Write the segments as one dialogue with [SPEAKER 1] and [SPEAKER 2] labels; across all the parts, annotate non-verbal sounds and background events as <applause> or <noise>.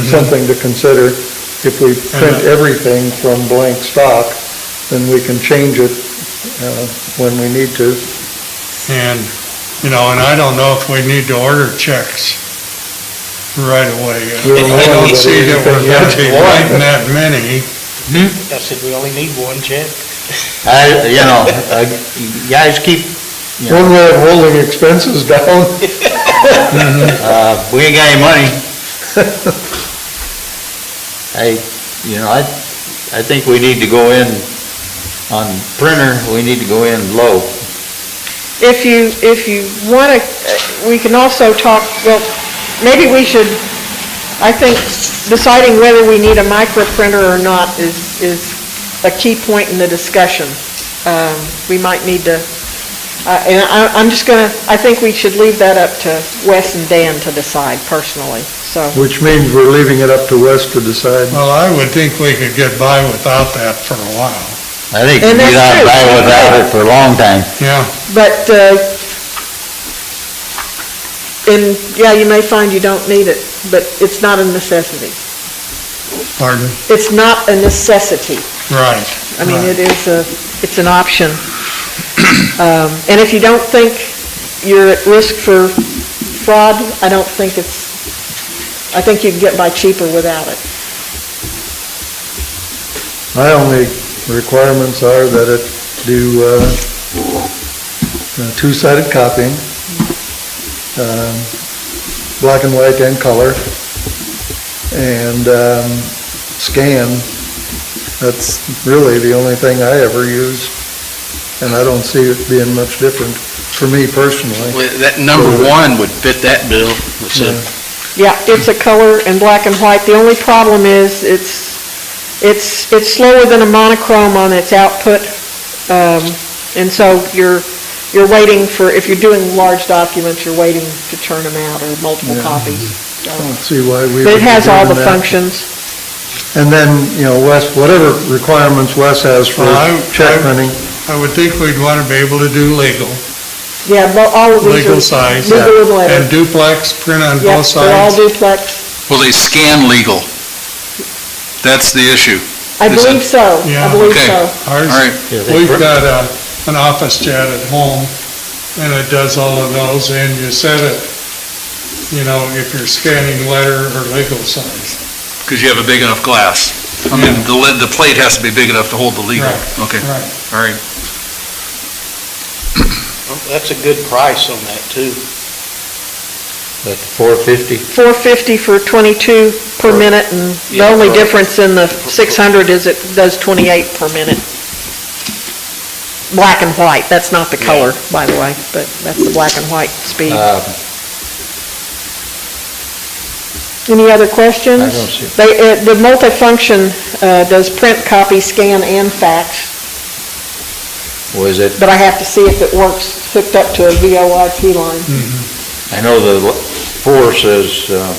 [SPEAKER 1] something to consider. If we print everything from blank stock, then we can change it uh, when we need to.
[SPEAKER 2] And, you know, and I don't know if we need to order checks right away.
[SPEAKER 1] We don't
[SPEAKER 2] I don't
[SPEAKER 1] know
[SPEAKER 2] see that we're going to be
[SPEAKER 1] anything yet.
[SPEAKER 2] writing that many.
[SPEAKER 3] I said, we only need one check.
[SPEAKER 4] I, you know, uh, you guys keep, Yeah.
[SPEAKER 1] One way of holding expenses <laughs> down.
[SPEAKER 4] uh, we ain't got any money. I, you know, I, I think we need to go in on printer, we need to go in low.
[SPEAKER 5] If you, if you want to, we can also talk, well, maybe we should, I think deciding whether we need a microprinter or not is, is a key point in the discussion. Um, We might need to, uh, and I, I'm just going to, I think we should leave that up to Wes and Dan to decide personally, so.
[SPEAKER 1] Which means we're leaving it up to Wes to decide.
[SPEAKER 2] Well, I would think we could get by without that for a while.
[SPEAKER 4] I think we
[SPEAKER 5] And that's
[SPEAKER 4] got
[SPEAKER 5] true.
[SPEAKER 4] by without it for a long time.
[SPEAKER 2] Yeah,
[SPEAKER 5] But, uh, and, yeah, you may find you don't need it, but it's not a necessity.
[SPEAKER 2] pardon?
[SPEAKER 5] It's not a necessity.
[SPEAKER 2] Right.
[SPEAKER 5] I mean, it is a, it's an option. Um, And if you don't think you're at risk for fraud, I don't think it's, I think you can get by cheaper without it.
[SPEAKER 1] My only requirements are that it do uh, uh, two-sided copying, um, black and white and color, and um, scan. That's really the only thing I ever use, and I don't see it being much different for me personally.
[SPEAKER 6] Well, That number one would fit that bill, which said,
[SPEAKER 5] Yeah, it's a color and black and white. The only problem is, it's, it's, it's slower than a monochrome on its output, um, and so you're, you're waiting for, if you're doing large documents, you're waiting to turn them out or multiple
[SPEAKER 1] Yeah.
[SPEAKER 5] copies.
[SPEAKER 1] I don't see why we would
[SPEAKER 5] But
[SPEAKER 1] be
[SPEAKER 5] it has all the
[SPEAKER 1] doing that.
[SPEAKER 5] functions.
[SPEAKER 1] And then, you know, Wes, whatever requirements Wes has for
[SPEAKER 2] Well, I-
[SPEAKER 1] check
[SPEAKER 2] I-
[SPEAKER 1] printing,
[SPEAKER 2] I would think we'd want to be able to do legal,
[SPEAKER 5] Yeah, well, all of these are...
[SPEAKER 2] legal size.
[SPEAKER 5] Legal and letter.
[SPEAKER 2] And duplex, print on
[SPEAKER 5] Yep,
[SPEAKER 2] both
[SPEAKER 5] they're all
[SPEAKER 2] sides.
[SPEAKER 5] duplex.
[SPEAKER 6] will they scan legal? That's the issue.
[SPEAKER 5] I
[SPEAKER 6] Is that-
[SPEAKER 5] believe so.
[SPEAKER 2] Yeah.
[SPEAKER 5] I believe
[SPEAKER 6] Okay.
[SPEAKER 5] so.
[SPEAKER 2] Ours-
[SPEAKER 6] All right.
[SPEAKER 2] We've got a, an office chat at home, and it does all of those, and you said it, you know, if you're scanning letter or legal size.
[SPEAKER 6] Because you have a big enough glass. I mean, the lid, the plate has to be big enough to hold the legal. Okay,
[SPEAKER 2] Right.
[SPEAKER 6] all right.
[SPEAKER 3] That's a good price on that, too.
[SPEAKER 4] That's four fifty.
[SPEAKER 5] 450 for 22 per minute, and the
[SPEAKER 3] Yeah,
[SPEAKER 5] only
[SPEAKER 3] for-
[SPEAKER 5] difference in the 600 is it does 28 per minute. Black and white, that's not the color, by the way, but that's the black and white speed.
[SPEAKER 4] Uh,
[SPEAKER 5] Any other questions?
[SPEAKER 4] I don't see.
[SPEAKER 5] They, uh, the multifunction, uh, does print, copy, scan, and fax,
[SPEAKER 4] was it,
[SPEAKER 5] but I have to see if it works hooked up to a VoIP line.
[SPEAKER 4] I know the l- four says, um,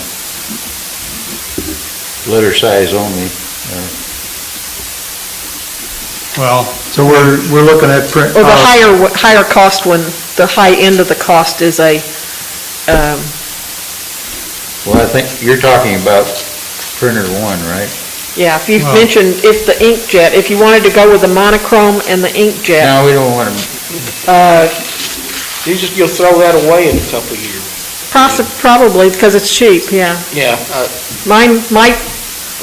[SPEAKER 4] letter size only.
[SPEAKER 2] Well,
[SPEAKER 1] so we're, we're looking at print.
[SPEAKER 5] Or the
[SPEAKER 1] uh,
[SPEAKER 5] higher, one- higher cost one, the high end of the cost is a, um,
[SPEAKER 4] Well, I think you're talking about printer one, right?
[SPEAKER 5] yeah, if you've
[SPEAKER 2] Well-
[SPEAKER 5] mentioned, if the inkjet, if you wanted to go with the monochrome and the inkjet,
[SPEAKER 4] No, we don't want to
[SPEAKER 5] uh,
[SPEAKER 3] You just, you'll throw that away in a couple of years.
[SPEAKER 5] possi- probably, because it's cheap, yeah.
[SPEAKER 3] Yeah, uh,
[SPEAKER 5] Mine, my,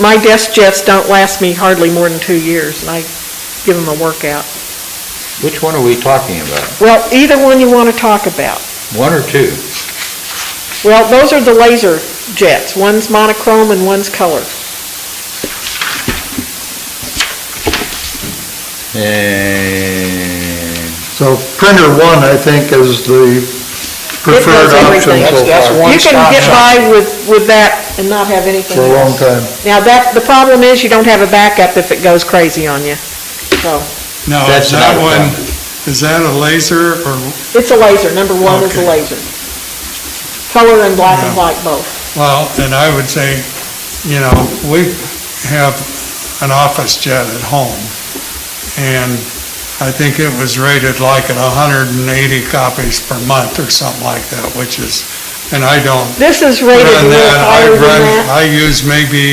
[SPEAKER 5] my desk jets don't last me hardly more than two years, and I give them a workout.
[SPEAKER 4] Which one are we talking about?
[SPEAKER 5] Well, either one you want to talk about.
[SPEAKER 4] One or two?
[SPEAKER 5] Well, those are the laser jets, one's monochrome and one's color.
[SPEAKER 4] And
[SPEAKER 1] So printer one, I think, is the preferred
[SPEAKER 5] does
[SPEAKER 1] option
[SPEAKER 5] everything.
[SPEAKER 1] so
[SPEAKER 3] that's, that's
[SPEAKER 1] far
[SPEAKER 3] one
[SPEAKER 5] You
[SPEAKER 3] stop
[SPEAKER 5] can get
[SPEAKER 3] shop.
[SPEAKER 5] by with, with that and not have anything
[SPEAKER 1] for a long
[SPEAKER 5] else.
[SPEAKER 1] time.
[SPEAKER 5] Now, that, the problem is, you don't have a backup if it goes crazy on you. So,
[SPEAKER 2] now, is
[SPEAKER 4] That's
[SPEAKER 2] that
[SPEAKER 4] another
[SPEAKER 2] one, is that a laser or,
[SPEAKER 5] it's a laser, number one is a
[SPEAKER 2] Okay.
[SPEAKER 5] laser. Color and black and
[SPEAKER 2] Yeah.
[SPEAKER 5] white both.
[SPEAKER 2] well, then I would say, you know, we have an office jet at home, and I think it was rated like at hundred and eighty copies per month or something like that, which is and I don't
[SPEAKER 5] This is rated a
[SPEAKER 2] run
[SPEAKER 5] little
[SPEAKER 2] that. I
[SPEAKER 5] higher than
[SPEAKER 2] run,
[SPEAKER 5] that.
[SPEAKER 2] I use maybe